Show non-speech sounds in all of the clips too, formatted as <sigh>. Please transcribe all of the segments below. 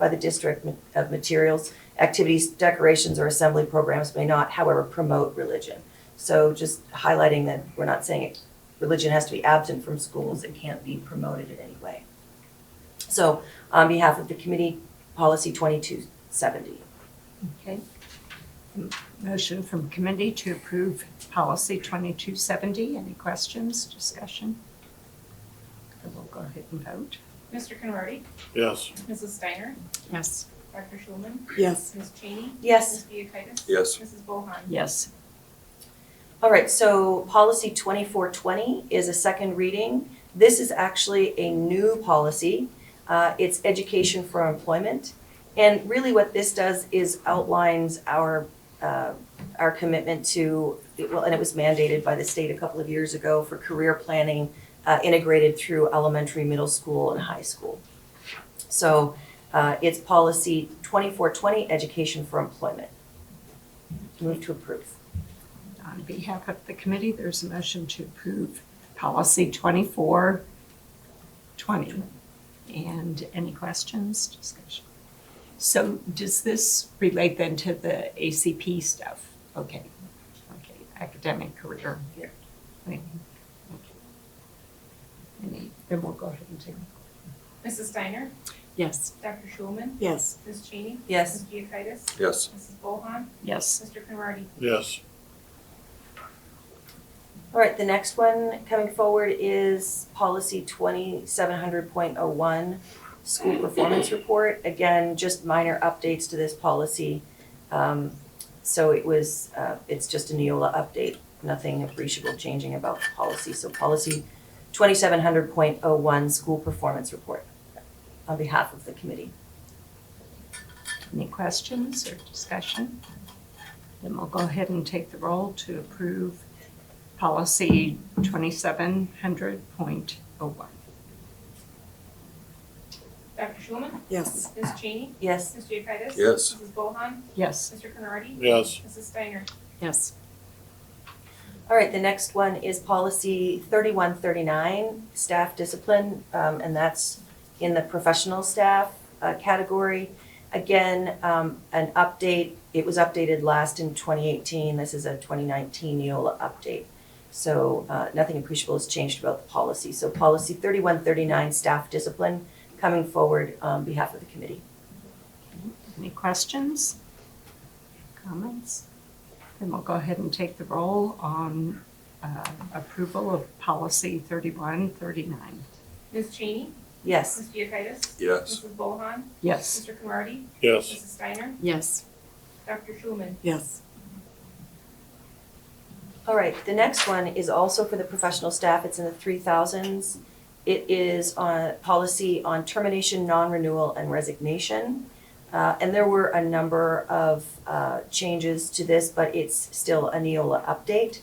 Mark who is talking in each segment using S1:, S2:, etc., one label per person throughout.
S1: by the district ma- of materials. Activities, decorations, or assembly programs may not, however, promote religion. So just highlighting that we're not saying it- religion has to be absent from schools, it can't be promoted in any way. So on behalf of the committee, policy 2270.
S2: Okay. Motion from committee to approve policy 2270. Any questions, discussion? Then we'll go ahead and vote.
S3: Mr. Conrady?
S4: Yes.
S3: Mrs. Steiner?
S2: Yes.
S3: Dr. Schulman?
S5: Yes.
S3: Ms. Cheney?
S1: Yes.
S3: Ms. Giacchides?
S6: Yes.
S3: Mrs. Bohan?
S2: Yes.
S1: All right, so policy 2420 is a second reading. This is actually a new policy. Uh, It's education for employment. And really what this does is outlines our, uh, our commitment to, well, and it was mandated by the state a couple of years ago for career planning uh, integrated through elementary, middle school, and high school. So uh, it's policy 2420, education for employment. Move to approve.
S2: On behalf of the committee, there's a motion to approve policy 2420. And any questions, discussion? So does this relate then to the ACP stuff? Okay, okay, academic career.
S1: Yeah.
S2: Okay. Any- Then we'll go ahead and take.
S3: Mrs. Steiner?
S2: Yes.
S3: Dr. Schulman?
S5: Yes.
S3: Ms. Cheney?
S1: Yes.
S3: Ms. Giacchides?
S6: Yes.
S3: Mrs. Bohan?
S2: Yes.
S3: Mr. Conrady?
S4: Yes.
S1: All right, the next one coming forward is policy twenty-seven hundred point oh one, school performance report. Again, just minor updates to this policy. Um, so it was, uh, it's just a Neola update, nothing appreciable changing about the policy. So policy twenty-seven hundred point oh one, school performance report on behalf of the committee.
S2: Any questions or discussion? Then we'll go ahead and take the roll to approve policy 2700.01.
S3: Dr. Schulman?
S5: Yes.
S3: Ms. Cheney?
S1: Yes,
S3: Ms. Giacchides?
S6: Yes.
S3: Mrs. Bohan?
S2: Yes.
S3: Mr. Conrady?
S4: Yes.
S3: Mrs. Steiner?
S2: Yes.
S1: all right, the next one is policy thirty-one thirty-nine, staff discipline, um, and that's in the professional staff uh, category. Again, um, an update, it was updated last in 2018. This is a E 2019 Neola update. So uh, nothing appreciable has changed about the policy. So policy 3139, staff discipline, coming forward on behalf of the committee.
S2: Any questions? Comments? Then we'll go ahead and take the roll on uh, approval of policy 3139.
S3: Ms. Cheney?
S1: Yes,
S3: Ms. Giacchides?
S6: Yes.
S3: Mrs. Bohan?
S2: Yes.
S3: Mr. Conrady?
S4: Yes.
S3: Mrs. Steiner?
S2: Yes.
S3: Dr. Schulman?
S5: Yes.
S1: all right. The next one is also for the professional staff. It's in the 3000s. It is on policy on termination, non-renewal, and resignation. Uh, And there were a number of uh, changes to this, but it's still a Neola update.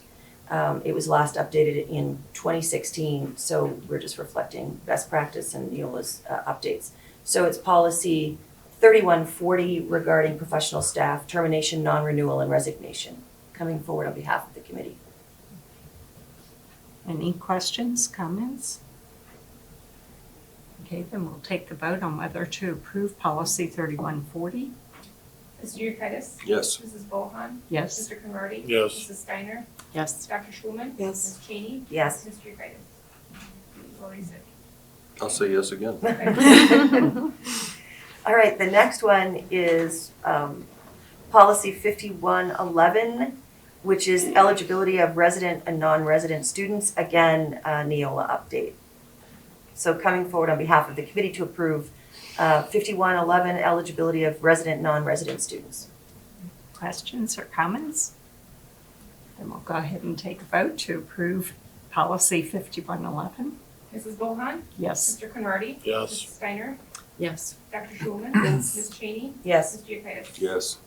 S1: Um, It was last updated in 2016, so we're just reflecting best practice and Neola's uh, updates. So it's policy 3140 regarding professional staff, termination, non-renewal, and resignation, coming forward on behalf of the committee.
S2: Any questions, comments? Okay, then we'll take the vote on whether to approve policy 3140.
S3: Ms. Giacchides?
S6: Yes.
S3: Mrs. Bohan?
S2: Yes.
S3: Mr. Conrady?
S4: Yes.
S3: Mrs. Steiner?
S2: Yes.
S3: Dr. Schulman?
S5: Yes.
S3: Ms. Cheney?
S1: <laughs> Yes.
S3: Ms. Giacchides? You already said.
S6: I'll say yes again.
S1: All right, the next one is um, policy 5111, which is eligibility of resident and non-resident students. Again, a Neola update. So coming forward on behalf of the committee to approve uh, 5111 eligibility of resident, non-resident students.
S2: <laughs> Questions or comments? Then we'll go ahead and take a vote to approve policy 5111.
S3: Mrs. Bohan?
S2: Yes.
S3: Mr. Conrady? Mrs.
S4: Yes.
S3: Steiner?
S2: Yes.
S3: Dr. Schulman? Ms. Cheney?
S1: Yes.
S3: Mrs. Giacchides?
S6: Yes.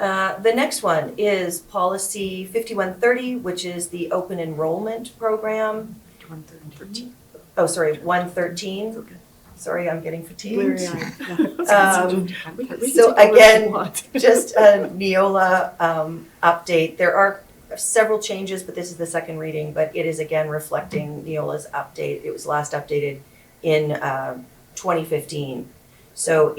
S1: Uh, The next one is policy 5130, which is the open enrollment program. 113. Oh, sorry, 113. Sorry, I'm getting fatigued.
S2: <laughs>
S1: Um, So again, <laughs> just a Neola um, update. There are several changes, but this is the second reading, but it is again reflecting Neola's update. It was last updated in um, 2015. uh, So